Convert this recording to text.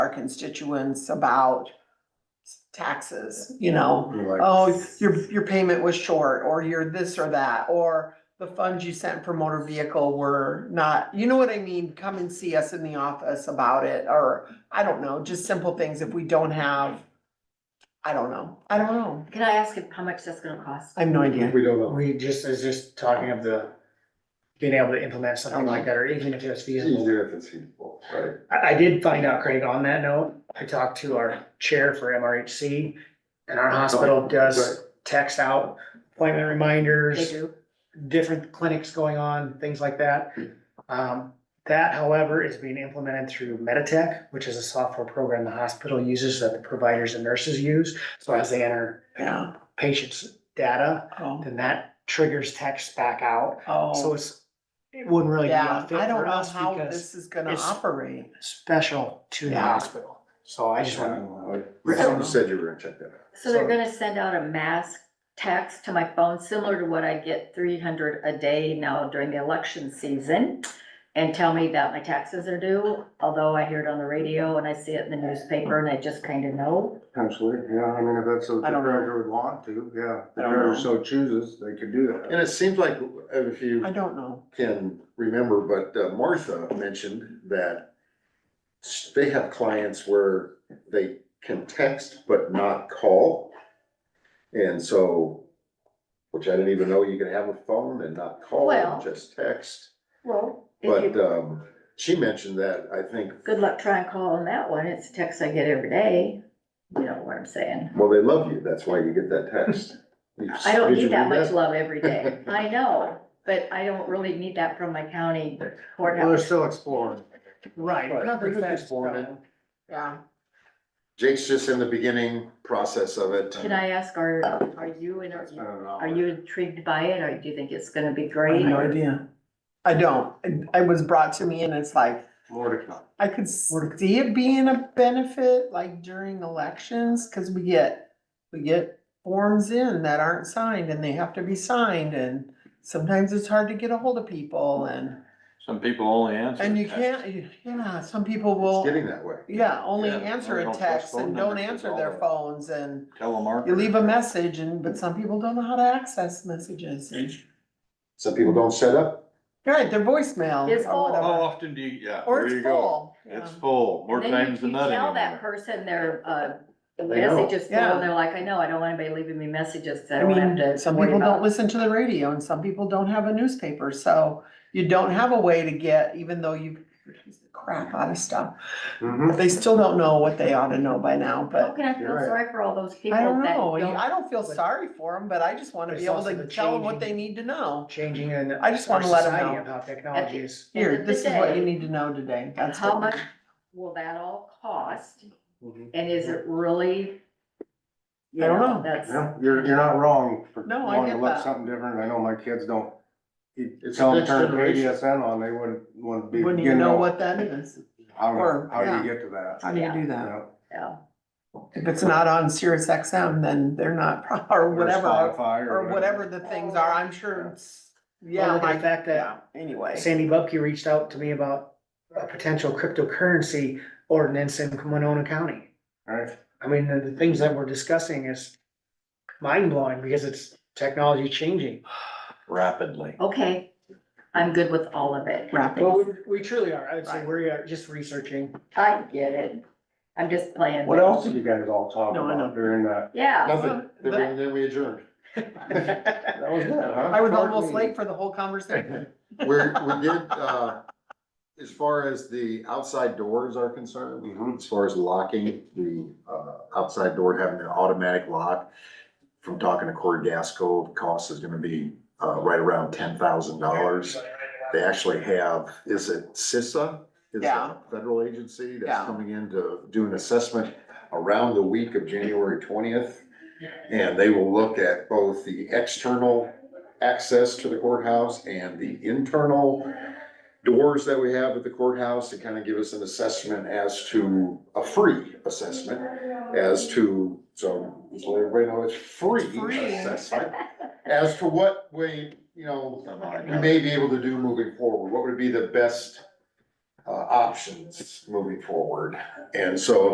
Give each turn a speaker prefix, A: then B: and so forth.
A: constituents about taxes, you know?
B: Right.
A: Oh, your, your payment was short, or you're this or that, or the funds you sent for motor vehicle were not, you know what I mean? Come and see us in the office about it, or, I don't know, just simple things if we don't have, I don't know, I don't know,
C: Can I ask if- how much that's gonna cost?
A: I have no idea.
B: We don't know.
D: We just, is just talking of the, being able to implement something like that, or even if it's
B: It's
D: feasible.
B: easier if it's feasible, right?
D: I, I did find out, Craig, on that note, I talked to our chair for MRHC, and our
B: Oh,
D: hospital does text out appointment
C: They
D: reminders,
C: do,
D: different clinics going on, things like that. Um, that however is being implemented through Meditech, which is a software program the hospital uses that the providers and nurses use. So as they enter
A: Yeah,
D: patients' data,
A: oh,
D: then that triggers text back out. So
A: oh,
D: it's, it wouldn't really be
A: yeah,
D: a fit
A: I don't
D: for
A: know
D: us
A: how
D: because
A: this is gonna
D: it's-
A: operate.
D: it's special to the
A: Yeah.
D: hospital. So I just want,
B: Right, You said you were gonna check that out.
C: so they're gonna send out a mass text to my phone, similar to what I get three hundred a day now during the election season. And tell me that my taxes are due, although I hear it on the radio and I see it in the newspaper and I just kind of know.
E: Potentially, yeah, I mean, if that's what the
A: I don't know.
E: treasurer would want to, yeah,
A: I
E: the
A: don't
E: treasurer
A: know.
E: so chooses, they could do
B: And
E: that.
B: it seems like, uh, if you
A: I don't know.
B: can remember, but uh, Martha mentioned that s- they have clients where they can text but not call. And so, which I didn't even know you could have a phone and not call,
C: Well-
B: just text.
C: Well, if
B: But,
C: you,
B: um, she mentioned that, I think,
C: good luck trying calling that one, it's a text I get every day, you know what I'm saying?
B: well, they love you, that's why you get that text. You-
C: I don't
B: did you
C: need that
B: read
C: much love every day, I know, but I don't really need that from my county
E: Well, they're
C: courthouse.
E: still exploring.
D: right,
B: Right.
D: nothing
B: We're
D: fast.
B: just born
D: though.
A: Yeah,
B: Jake's just in the beginning process of it.
C: Can I ask, are, are you, in-
E: That's been an
C: are
E: hour.
C: you intrigued by it, or do you think it's gonna be
A: I have
C: great?
A: no idea. I don't. I- It was brought to me and it's like,
E: More to come.
A: I could see it being a benefit like during elections, cause we get, we get forms in that aren't signed and they have to be signed and sometimes it's hard to get a hold of people and,
F: Some people only answer.
A: and you
F: text.
A: can't, yeah, some people
B: It's
A: will,
B: getting that way.
A: yeah, only
F: Yeah,
A: answer
F: they
A: a
F: don't post
A: text
F: phone
A: and don't
F: numbers,
A: answer
F: it's
A: their
F: all-
A: phones and
F: Telemarketer.
A: you leave a message and, but some people don't know how to access messages. and-
B: Some people don't set up,
A: Right, their voicemail
C: It's
A: or
F: How
A: whatever.
F: often do you, yeah,
A: Or
F: Oh, there
A: it's
F: you go.
A: full.
F: It's
A: yeah.
F: full, more
C: And then you-
F: times than
C: you
F: nothing.
C: Tell that
F: anymore.
C: person their, uh, the
B: They know.
C: message is full,
A: Yeah.
C: and they're like, I know, I don't want anybody leaving me messages, so I
A: I
C: don't have
A: mean,
C: to.
A: some
C: worry
A: people
C: about
A: don't listen to the radio and some people don't have a newspaper, so you don't have a way to get, even though you crap out of stuff.
E: Mhm.
A: They still don't know what they ought to know by now,
C: How
A: but
C: can I feel
E: You're right.
C: sorry for all those people
A: I don't
C: that
A: know.
C: don't-
A: I don't feel sorry for them, but I just wanna
D: But
A: be
D: it's
A: able
D: also
A: to
D: the
A: tell them what
D: changing-
A: they need to know.
D: Changing in.
A: I just
D: our
A: wanna let 'em
D: society
A: know.
D: of How technology is.
C: End
A: Here,
C: of the
A: this is what you
C: day,
A: need to know today. That's
C: How
A: what-
C: much will that all cost,
E: Mhm.
C: and is it really? you
A: I don't know.
C: That's.
E: Yeah, you're, you're not wrong for
A: No, I
E: wanting to
A: get
E: look
A: that.
E: something different. I know my kids don't. you
B: It's
E: Tell
B: the
E: them
B: next
E: turn
B: generation.
E: ADSN on, they wouldn't, wouldn't be.
A: Wouldn't
E: you
A: even know what that is.
E: How,
A: or-
E: how
A: yeah.
E: do you get to that?
A: How do you
C: Yeah.
A: do that?
E: Yeah.
C: Yeah,
A: If it's not on Sirius XM, then they're not, or
E: Or
A: whatever,
E: Spotify
A: or whatever the things are, I'm sure. it's- Yeah,
D: look at the
A: like-
D: fact that
A: yeah, anyway.
D: Sandy Bupke reached out to me about a potential cryptocurrency ordinance in Winona County.
E: Right,
D: I mean, the, the things that we're discussing is mind blowing because it's technology changing.
F: Rapidly.
C: okay, I'm good with all of it.
A: wrapping.
D: Well, we, we truly are. I would say
A: Right.
D: we are just researching.
C: I get it. I'm just playing.
E: what else did you guys all talk
A: No, I know.
E: about during that?
C: Yeah,
B: Nothing,
A: Well,
B: then we- then we adjourned.
E: That was good, huh?
A: I was
E: Short
A: almost
E: meeting.
A: late for the whole conversation.
B: We're, we did, uh, as far as the outside doors are concerned,
E: Mhm.
B: as far as locking, the, uh, outside door having an automatic lock. From talking to Corey Gasco, the cost is gonna be, uh, right around ten thousand dollars. They actually have, is it CISA? It's a
A: Yeah.
B: Federal agency
A: Yeah.
B: that's coming in to do an assessment around the week of January twentieth. And they will look at both the external access to the courthouse and the internal doors that we have at the courthouse to kind of give us an assessment as to, a free assessment as to, so, just let everybody know it's free
A: Free.
B: assessment. As to what way, you know, we may be able to do moving forward, what would be the best uh, options moving forward. And so